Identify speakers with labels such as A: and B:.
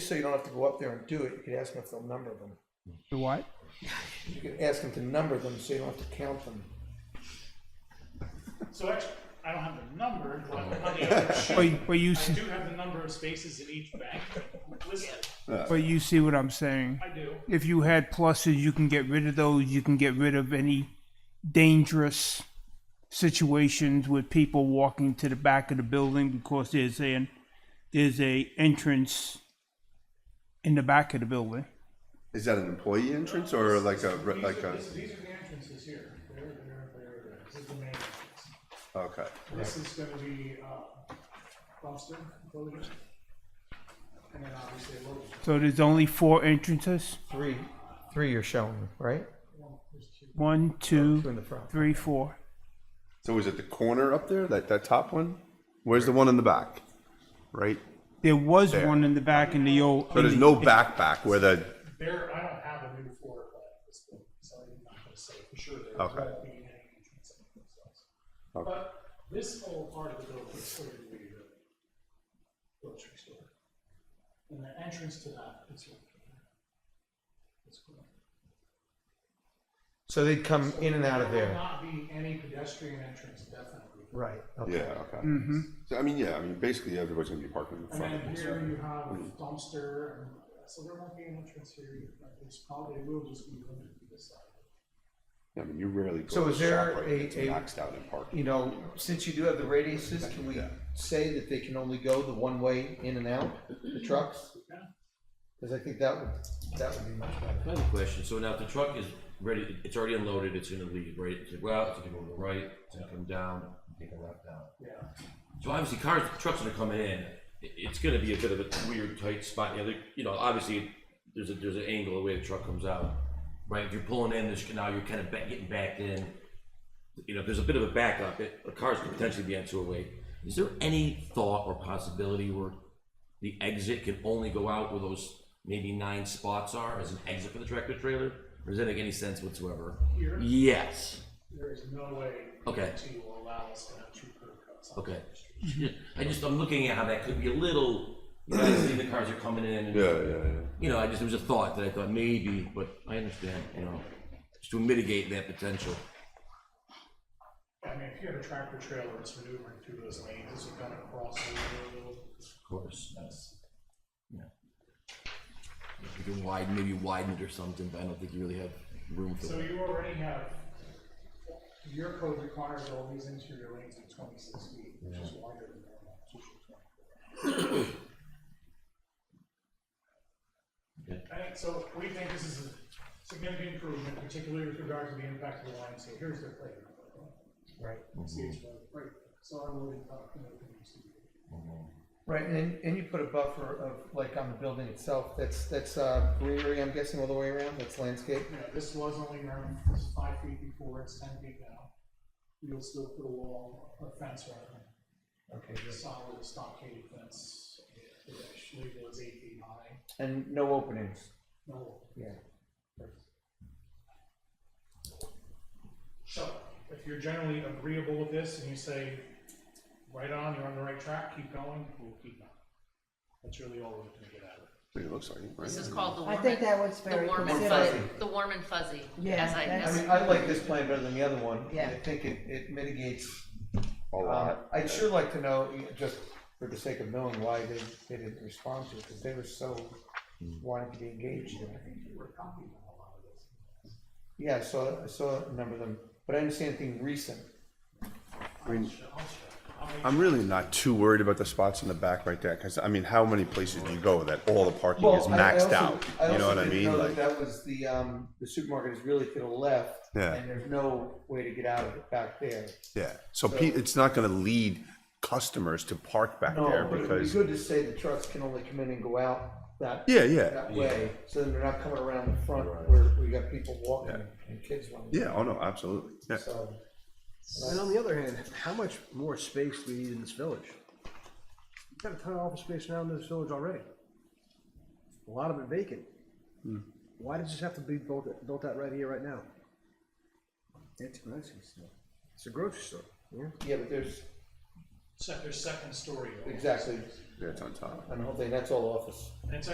A: so you don't have to go up there and do it, you could ask them if they'll number them.
B: The what?
A: You could ask them to number them so you don't have to count them.
C: So actually, I don't have the number, but on the other
B: But,
C: sheet,
B: but you,
C: I
B: s-
C: do have the number of spaces in each bank listed.
B: but you see what I'm saying?
C: I do.
B: If you had pluses, you can get rid of those. You can get rid of any dangerous situations with people walking to the back of the building because there's an there's a entrance in the back of the building.
D: Is that an employee entrance or like a re- like uh, a?
C: These these are the entrances here. There, there, there, there. This is the main entrance.
D: Okay.
C: This is gonna be, uh, dumpster enclosure. And then obviously a load.
B: So there's only four entrances.
A: Three, three you're showing, right?
B: One,
A: Two in
B: two,
A: the front.
B: three, four.
D: So is it the corner up there, that that top one? Where's the one in the back? Right.
B: There was
D: There.
B: one in the back in the old.
D: So there's no back back where the.
C: There, I don't have a new floor plan at this point, so I'm not gonna say for sure there
D: Okay.
C: won't be any entrance in this house. But this whole part of the building is sort of the grocery store. And the entrance to that is right here. It's cool.
A: So they'd come in and out of
C: There
A: there.
C: will not be any pedestrian entrance, definitely.
A: Right, okay.
D: Yeah. Okay.
A: Mm-hmm.
D: So I mean, yeah. I mean, basically everybody's gonna be parking in
C: And
D: front of
C: then
D: it.
C: here
D: so-
C: you have dumpster, and so there won't be an entrance here, either, but it's probably will just be limited to this side.
D: I mean, you rarely go.
A: So
D: to
A: is
D: the shop
A: there
D: right,
A: a-
D: it's
A: a-
D: maxed out in parking?
A: You know, since you do have the radiuses, can we say that they can only go the one way in and out, the trucks? Because I think that would, that would be much better.
E: I have a question. So now if the truck is ready, it's already unloaded, it's gonna leave, right? It's gonna go out, it's gonna go to the right, it's gonna come down, take a left down.
C: Yeah.
E: So obviously cars, trucks are coming in, i- it's gonna be a bit of a weird tight spot, you know, there- you know, obviously, there's a, there's an angle the way the truck comes out. Right, if you're pulling in, there's, now you're kind of back, getting backed in, you know, if there's a bit of a backup, it, a car's could potentially be on two oh eight. Is there any thought or possibility where the exit can only go out where those maybe nine spots are as an exit for the tractor trailer? Or does that make any sense whatsoever?
C: Here?
E: Yes,
C: There is no way
E: Okay.
C: to allow us to have two curb cuts. on
E: okay.
C: the street.
E: I just, I'm looking at how that could be a little, you know, I see the cars are coming in and
D: Yeah, yeah, yeah.
E: you know, I just, it was a thought that I thought maybe, but I understand, you know, just to mitigate that potential.
C: I mean, if you had a tractor trailer that's maneuvering through those lanes, it's gonna cross over a little.
E: Of course. That's, yeah. If you can widen, maybe widen it or something, but I don't think you really have room for
C: So
E: that.
C: you already have, your code requires all these interior lanes at twenty-six feet, which is wider than normal, it's usually
E: Okay.
C: twenty-four. Alright, so we think this is a significant improvement, particularly with regard to the impact of the line, so here's their playground.
A: Right.
C: See, it's right, right, so I'm really, uh, you know, confused.
A: Right, and, then- and you put a buffer of, like, on the building itself, that's, that's uh, greenery, I'm guessing, all the way around, that's landscape?
C: Yeah, this was only around five feet before, it's ten feet now. We'll still put a wall, a fence around it,
A: Okay,
C: a
A: good.
C: solid stockade fence, which legal is eight feet high.
A: And no openings?
C: No,
A: Yeah.
C: so, if you're generally agreeable with this and you say, right on, you're on the right track, keep going, we'll keep going. That's really all we're gonna get out of it.
D: I mean, it looks like it, right?
F: This is called the warm.
G: I think that was very
F: The warm and
G: considerate.
F: fuzzy, the warm and fuzzy,
G: Yeah,
F: as I,
G: that's-
A: I
F: as
A: mean, I like this plan better than the other one.
G: Yeah.
A: I think it, it mitigates.
D: A
F: uh,
A: Um,
D: lot.
A: I'd sure like to know, you know, just for the sake of knowing why they, they didn't respond to it, because they were so wanting to be engaged in it. Yeah, I saw, I saw a number of them, but I didn't see anything recent.
D: I mean, I'm really not too worried about the spots in the back right there, because I mean, how many places do you go that all the parking is
A: Well, I- I
D: maxed
A: also-
D: out? You know
A: also
D: what I
A: didn't
D: mean?
A: know that
D: Like,
A: That was the, um, the supermarket is really to the left.
D: Yeah.
A: And there's no way to get out of it back there.
D: yeah. So pe- it's not gonna lead customers to park back there
A: No, but it'd be
D: because,
A: good to say the trucks can only come in and go out that
D: yeah, yeah.
A: that way, so then they're not coming around the front where we got people walking and kids running.
D: Yeah, oh no, absolutely. Yeah.
A: So,
H: And on the other hand, how much more space do we need in this village? We've got a ton of office space now in this village already. A lot of it vacant. Why does this have to be built, built out right here, right now? It's a grocery store. It's a grocery store, yeah?
A: yeah, but there's,
C: Se- their second story.
A: exactly,
D: Yeah, it's on top.
A: I don't think that's all office.
C: And it's